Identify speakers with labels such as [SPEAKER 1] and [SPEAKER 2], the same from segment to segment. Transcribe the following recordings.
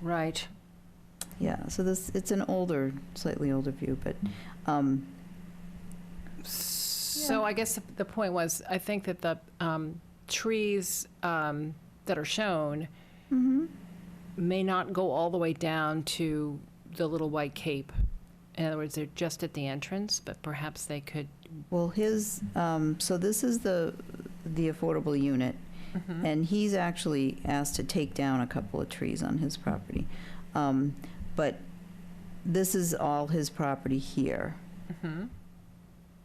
[SPEAKER 1] Right.
[SPEAKER 2] Yeah, so this, it's an older, slightly older view, but,
[SPEAKER 1] Mm-hmm.
[SPEAKER 2] um,
[SPEAKER 1] So I guess the point was, I think that the um, trees um, that are shown may not go all the way down to the little white cape. In other words, they're just at the entrance, but perhaps they could.
[SPEAKER 2] well, his, um, so this is the, the affordable unit,
[SPEAKER 1] Mm-hmm.
[SPEAKER 2] and he's actually asked to take down a couple of trees on his property. Um, But this is all his property here.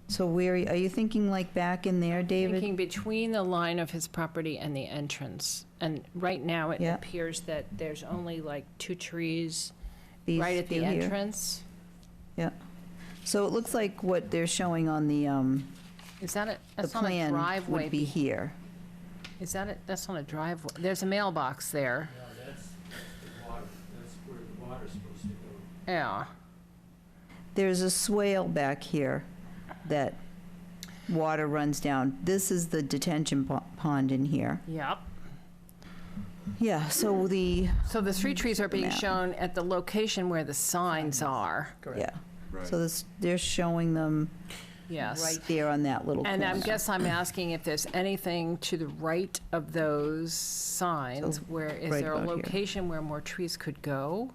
[SPEAKER 2] So where, are you thinking like back in there, David?
[SPEAKER 1] Thinking between the line of his property and the entrance. And right now, it
[SPEAKER 2] Yeah.
[SPEAKER 1] appears that there's only like two trees
[SPEAKER 2] These
[SPEAKER 1] right at the
[SPEAKER 2] few here?
[SPEAKER 1] entrance.
[SPEAKER 2] So it looks like what they're showing on the, um,
[SPEAKER 1] Is that a,
[SPEAKER 2] the
[SPEAKER 1] that's on a
[SPEAKER 2] plan
[SPEAKER 1] driveway?
[SPEAKER 2] would be here.
[SPEAKER 1] Is that a, that's on a driveway? There's a mailbox there.
[SPEAKER 3] No, that's the water, that's where the water's supposed to go.
[SPEAKER 1] Yeah.
[SPEAKER 2] There's a swale back here that water runs down. This is the detention po- pond in here.
[SPEAKER 1] Yep.
[SPEAKER 2] Yeah, so the,
[SPEAKER 1] So the three trees are being
[SPEAKER 2] Map.
[SPEAKER 1] shown at the location where the signs are,
[SPEAKER 2] yeah. So this, they're showing them
[SPEAKER 1] yes.
[SPEAKER 2] right there on that little
[SPEAKER 1] And
[SPEAKER 2] corner.
[SPEAKER 1] I guess I'm asking if there's anything to the right of those signs
[SPEAKER 2] So,
[SPEAKER 1] where, is
[SPEAKER 2] right
[SPEAKER 1] there a
[SPEAKER 2] about here. Hmm.
[SPEAKER 1] location where more trees could go?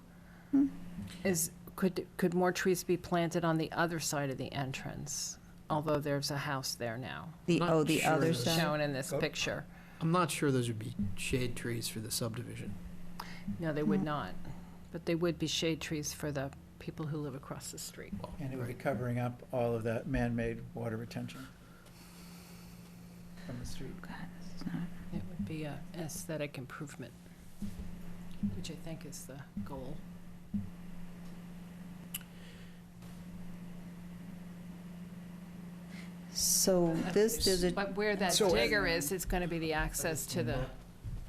[SPEAKER 1] Is, could, could more trees be planted on the other side of the entrance? Although there's a house there now,
[SPEAKER 2] The,
[SPEAKER 3] Not
[SPEAKER 2] oh, the
[SPEAKER 3] sure
[SPEAKER 2] other
[SPEAKER 3] that's-
[SPEAKER 2] side.
[SPEAKER 1] shown in this
[SPEAKER 3] Oh.
[SPEAKER 1] picture.
[SPEAKER 3] I'm not sure those would be shade trees for the subdivision.
[SPEAKER 1] No, they
[SPEAKER 2] Hmm.
[SPEAKER 1] would not, but they would be shade trees for the people who live across the street.
[SPEAKER 4] And it would be covering up all of that man-made water retention from the street.
[SPEAKER 1] It would be a aesthetic improvement, which I think is the goal.
[SPEAKER 2] So this, there's a,
[SPEAKER 1] But where that
[SPEAKER 4] So-
[SPEAKER 1] digger is, it's gonna be the access to the,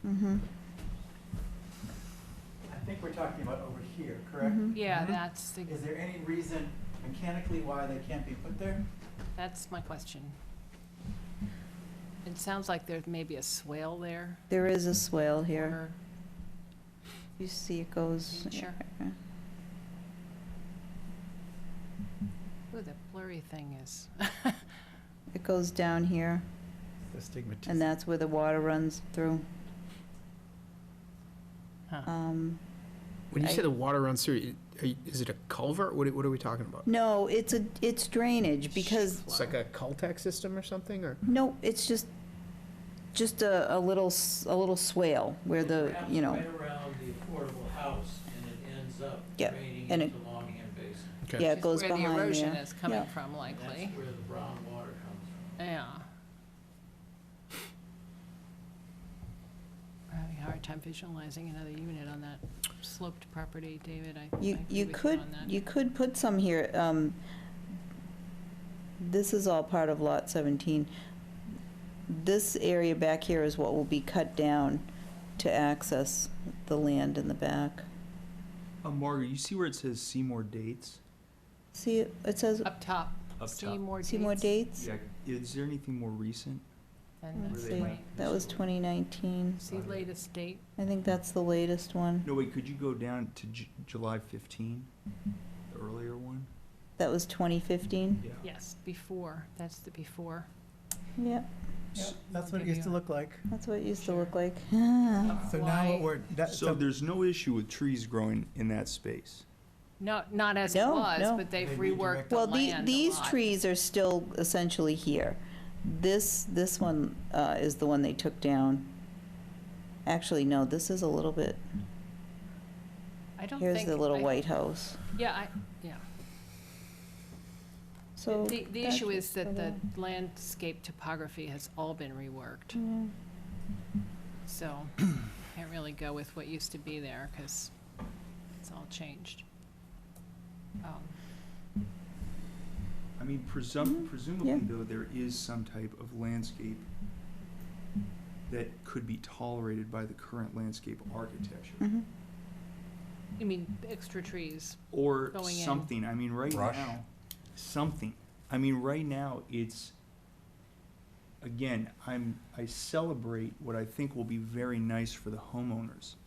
[SPEAKER 2] mhm,
[SPEAKER 4] I think we're talking about over here, correct?
[SPEAKER 2] Mm-hmm.
[SPEAKER 1] yeah, that's, the
[SPEAKER 4] Is there any reason mechanically why they can't be put there?
[SPEAKER 1] that's my question. It sounds like there's maybe a swale there.
[SPEAKER 2] there is a swale here.
[SPEAKER 1] or-
[SPEAKER 2] You see it goes.
[SPEAKER 1] Sure. Ooh, that blurry thing is.
[SPEAKER 2] It goes down here,
[SPEAKER 4] The
[SPEAKER 2] and
[SPEAKER 4] stigmatization.
[SPEAKER 2] that's where the water runs through.
[SPEAKER 1] Huh.
[SPEAKER 2] Um,
[SPEAKER 3] When you
[SPEAKER 2] I-
[SPEAKER 3] say the water runs through, it- are you- is it a culvert? What are, what are we talking about?
[SPEAKER 2] No, it's a, it's drainage, because
[SPEAKER 3] It's like a Caltech system or something, or?
[SPEAKER 2] No, it's just, just a, a little, s- a little swale where the, you know,
[SPEAKER 5] It wraps right around the affordable house and it ends up
[SPEAKER 2] Yeah,
[SPEAKER 5] draining
[SPEAKER 2] and
[SPEAKER 5] into Longham Basin.
[SPEAKER 2] yeah, it
[SPEAKER 1] Just
[SPEAKER 2] goes
[SPEAKER 1] Where the
[SPEAKER 2] behind
[SPEAKER 1] erosion
[SPEAKER 2] there.
[SPEAKER 1] is coming
[SPEAKER 2] Yeah.
[SPEAKER 1] from likely,
[SPEAKER 5] That's where the brown water comes from.
[SPEAKER 1] yeah. I'm having a hard time visualizing another unit on that sloped property, David, I I agree
[SPEAKER 2] You,
[SPEAKER 1] with you
[SPEAKER 2] you could,
[SPEAKER 1] on that.
[SPEAKER 2] you could put some here, um, this is all part of lot seventeen. This area back here is what will be cut down to access the land in the back.
[SPEAKER 6] Um, Margaret, you see where it says Seymour dates?
[SPEAKER 2] See, it it says,
[SPEAKER 1] Up top,
[SPEAKER 6] Up
[SPEAKER 1] see more dates.
[SPEAKER 2] see more dates?
[SPEAKER 6] Yeah. Is there anything more recent?
[SPEAKER 1] And
[SPEAKER 2] Let's
[SPEAKER 1] the
[SPEAKER 2] see,
[SPEAKER 1] twenty-
[SPEAKER 2] that was twenty nineteen,
[SPEAKER 1] See latest date?
[SPEAKER 2] I think that's the latest one,
[SPEAKER 6] No, wait, could you go down to J- July 15? The earlier one?
[SPEAKER 2] that was twenty fifteen,
[SPEAKER 6] Yeah.
[SPEAKER 1] Yes, before, that's the before.
[SPEAKER 2] yeah.
[SPEAKER 4] Yeah, That's what it used to look like.
[SPEAKER 2] That's what it used to
[SPEAKER 1] Sure.
[SPEAKER 2] look like.
[SPEAKER 4] So now what we're, that,
[SPEAKER 6] So
[SPEAKER 4] so
[SPEAKER 6] there's no issue with trees growing in that space.
[SPEAKER 1] No, not as it
[SPEAKER 2] No,
[SPEAKER 1] was,
[SPEAKER 2] no.
[SPEAKER 1] but they've
[SPEAKER 4] They redirect-
[SPEAKER 1] reworked the
[SPEAKER 2] Well, the,
[SPEAKER 1] land a
[SPEAKER 2] these
[SPEAKER 1] lot.
[SPEAKER 2] trees are still essentially here. This, this one uh, is the one they took down. Actually, no, this is a little bit,
[SPEAKER 1] I don't
[SPEAKER 2] here's
[SPEAKER 1] think-
[SPEAKER 2] the little
[SPEAKER 1] I-
[SPEAKER 2] white house.
[SPEAKER 1] Yeah, I, yeah.
[SPEAKER 2] So.
[SPEAKER 1] The, the
[SPEAKER 2] that's
[SPEAKER 1] issue is
[SPEAKER 2] just
[SPEAKER 1] that
[SPEAKER 2] the
[SPEAKER 1] the
[SPEAKER 2] one.
[SPEAKER 1] landscape topography has all been reworked,
[SPEAKER 2] Yeah.
[SPEAKER 1] so can't really go with what used to be there, because it's all changed. Um,
[SPEAKER 6] I mean,
[SPEAKER 1] Mm-hmm.
[SPEAKER 6] presum- presumably,
[SPEAKER 2] yeah.
[SPEAKER 6] though, there is some type of landscape that could be tolerated by the current landscape architecture.
[SPEAKER 2] Mhm.
[SPEAKER 1] You mean, extra trees,
[SPEAKER 6] or
[SPEAKER 1] going in.
[SPEAKER 6] something. I mean, right
[SPEAKER 7] Brush.
[SPEAKER 6] now, something. I mean, right now, it's again. I'm I celebrate what I think will be very nice for the homeowners.